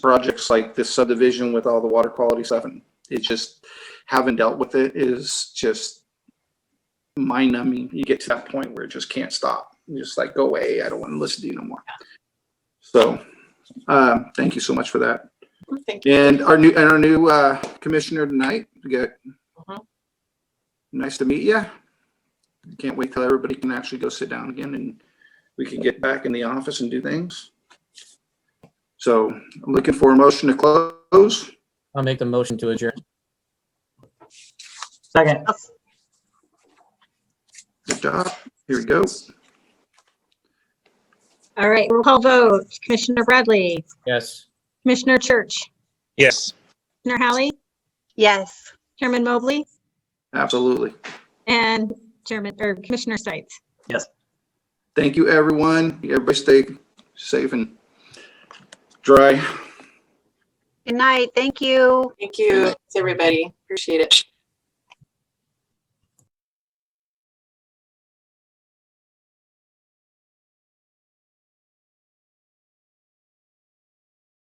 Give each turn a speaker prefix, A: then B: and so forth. A: projects like this subdivision with all the water quality stuff and it's just, having dealt with it is just mind numbing. You get to that point where it just can't stop. You're just like, go away. I don't want to listen to you no more. So, um, thank you so much for that.
B: Thank you.
A: And our new, and our new, uh, commissioner tonight, we got,
B: Mhm.
A: nice to meet you. Can't wait till everybody can actually go sit down again and we can get back in the office and do things. So I'm looking for a motion to close.
C: I'll make the motion to adjourn.
D: Second.
A: Good job. Here we go.
E: All right, roll call vote. Commissioner Bradley,
C: Yes.
E: Commissioner Church,
F: Yes.
E: Commissioner Hallie,
B: Yes.
E: Chairman Mobley,
A: Absolutely.
E: and Chairman, or Commissioner Stites.
A: Thank you, everyone. Everybody stay safe and dry.
G: Good night. Thank you.
B: Thank you, everybody. Appreciate it.